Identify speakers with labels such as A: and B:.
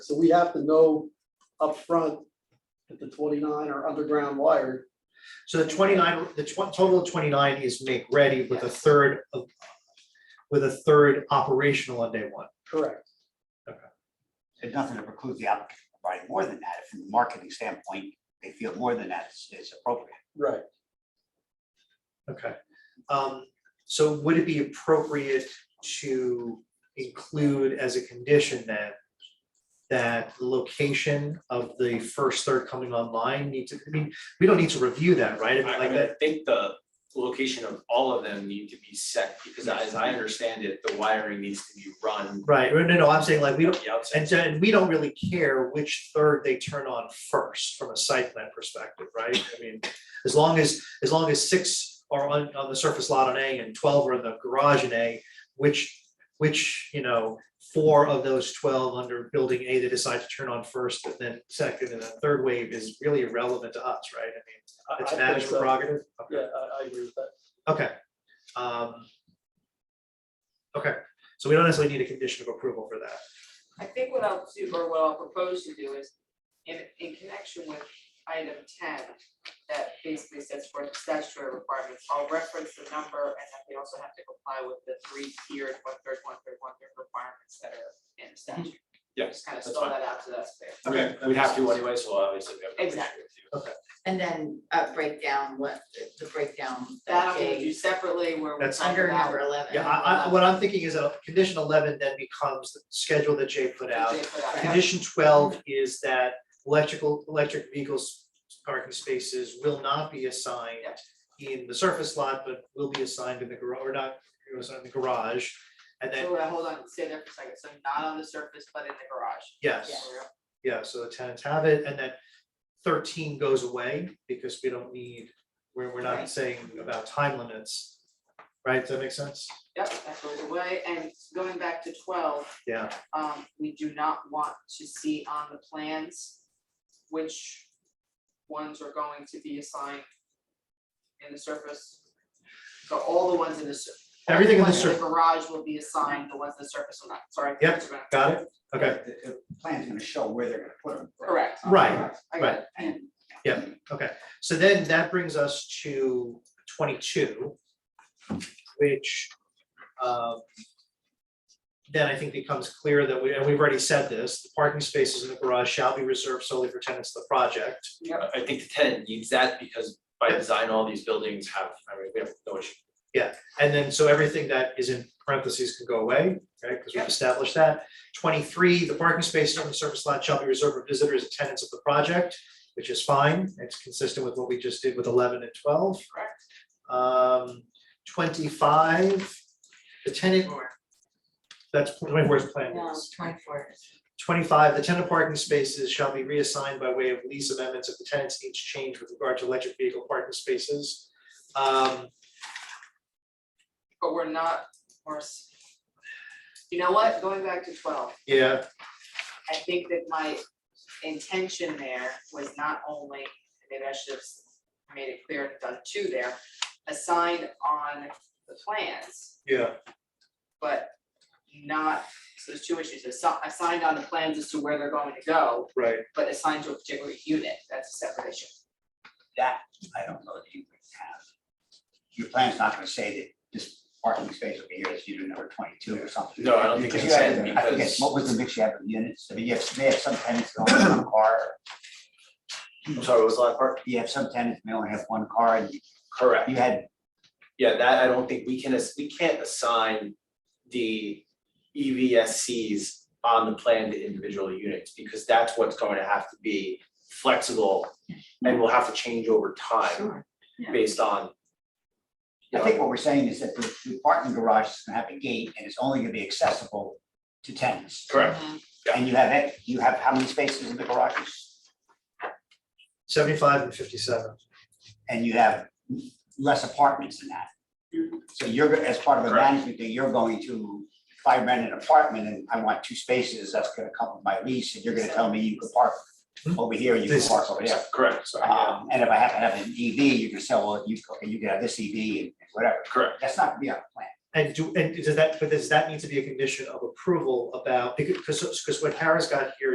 A: So we have to know upfront that the twenty-nine are underground wired.
B: So the twenty-nine, the tw- total of twenty-nine is make ready with a third of, with a third operational on day one.
A: Correct.
C: There's nothing to preclude the applicant from providing more than that. If From a marketing standpoint, they feel more than that is- is appropriate.
A: Right.
B: Okay. Um, so would it be appropriate to include as a condition that that the location of the first third coming online needs to, I mean, we don't need to review that, right? I mean,
D: I I
B: like
D: mean, I
B: that,
D: think the location of all of them need to be set, because as I understand it, the wiring needs to be run.
B: right, no, no, I'm saying like, we don't,
D: at the outset.
B: and so, and we don't really care which third they turn on first from a site plan perspective, right? I mean, as long as, as long as six are on, on the surface lot on A and twelve are in the garage in A, which, which, you know, four of those twelve under building A, they decide to turn on first, and then second, and then third wave is really irrelevant to us, right?
A: I-
B: I mean,
A: I
B: it's
A: think
B: management
A: so.
B: prerogative. Okay.
A: Yeah, I, I agree with that.
B: Okay. Um, Okay, so we don't necessarily need a condition of approval for that.
E: I think what I'll do, or what I'll propose to do is, in, in connection with item ten, that basically sets forth the statutory requirements, I'll reference the number and that they also have to comply with the three tiered, one third, one third, one third requirements that are in the statute.
D: Yes,
E: Just kind of
D: Mm-hmm. that's
E: spell
D: fine.
E: that out so that's clear.
D: Okay, we have to anyway, so obviously we have no issue
E: Exactly.
D: with you.
F: And then uh break down what the breakdown.
E: That I'm
F: of
E: gonna do
F: the-
E: separately where we
B: That's
E: talk
F: Under
E: about.
F: number eleven. Um,
B: Yeah, I, I, what I'm thinking is that condition eleven then becomes the schedule that Jay put out.
E: They put out.
B: Condition twelve is that electrical, electric vehicles parking spaces will not be assigned in the surface lot, but will be assigned in the garage, or not, it was in the garage. And then,
E: So, uh, hold on, stay there for a second, so not on the surface, but in the garage.
B: yes, yeah, so the tenants have it, and then thirteen goes away because we don't need, we're, we're not
E: Right.
B: saying about time limits. Right, does that make sense?
E: Yep, that goes away, and going back to twelve,
B: Yeah,
E: um, we do not want to see on the plans which ones are going to be assigned in the surface. So all the ones in the sur- all
B: Everything in the
E: ones
B: sur-
E: garage will be assigned, the ones in the surface will not, sorry.
B: Yep. got it? Okay,
C: The- The plan's gonna show where they're gonna put them.
E: Correct,
B: Right,
E: I got it, and
B: So then that brings us to twenty-two, which um, then I think becomes clear that we, and we've already said this, the parking spaces in the garage shall be reserved solely for tenants of the project.
D: I- I think the tenant needs that, because by design, all these buildings have, I mean, we have no issue.
B: And then, so everything that is in parentheses can go away, right, because we've established that. Twenty-three, the parking spaces on the surface lot shall be reserved for visitors and tenants of the project, which is fine, it's consistent with what we just did with eleven and twelve.
E: Correct.
B: Um, twenty-five, the tenant, that's twenty-four's plan.
F: No,
B: is.
F: twenty-four.
B: Twenty-five, the tenant parking spaces shall be reassigned by way of lease amendments if the tenants each change with regard to electric vehicle parking spaces. Um,
E: but we're not, we're. s- You know what, going back to twelve,
B: yeah,
E: I think that my intention there was not only, maybe I should have made it clear and done two there, a sign on the plans,
B: Yeah,
E: but not, so there's two issues, a sign, a sign on the plans as to where they're going to go,
B: right.
E: but assigned to a particular unit, that's a separate issue.
C: That, I don't know that you would have. Your plan's not gonna say that this parking space over here is unit number twenty-two or something.
D: No, I don't think
C: Because
D: it
C: you have-
D: said,
C: I forget,
D: because-
C: What was the mix you have of units? I mean, you have, they have some tenants that only have one car.
D: I'm sorry, what was the last part?
C: You have some tenants may only have one car. and you-
D: Correct.
C: You had
D: Yeah, that I don't think we can, ass- we can't assign the E EVSCs on the plan to individual units, because that's what's going to have to be flexible and will have to change over time based on.
C: I
D: you know,
C: think what we're saying is that the the parking garage is gonna have a gate and it's only gonna be accessible to tenants.
D: Correct, yeah.
C: And you have, it- you have how many spaces in the garages?
B: Seventy-five and fifty-seven.
C: And you have less apartments than that. So you're, go- as part of a
D: Correct.
C: management thing, you're going to, if I rent an apartment and I want two spaces, that's gonna come with my lease, and you're gonna tell me you can park
B: Hmm.
C: over here, you can
B: This-
C: park over there.
D: correct, sorry, yeah,
C: Um, and if I happen to have an EV, you can sell, well, you, okay, you can have this EV and whatever.
D: correct.
C: That's not gonna be our plan.
B: And do, and does that, but does that need to be a condition of approval about, because, because what Kara's got here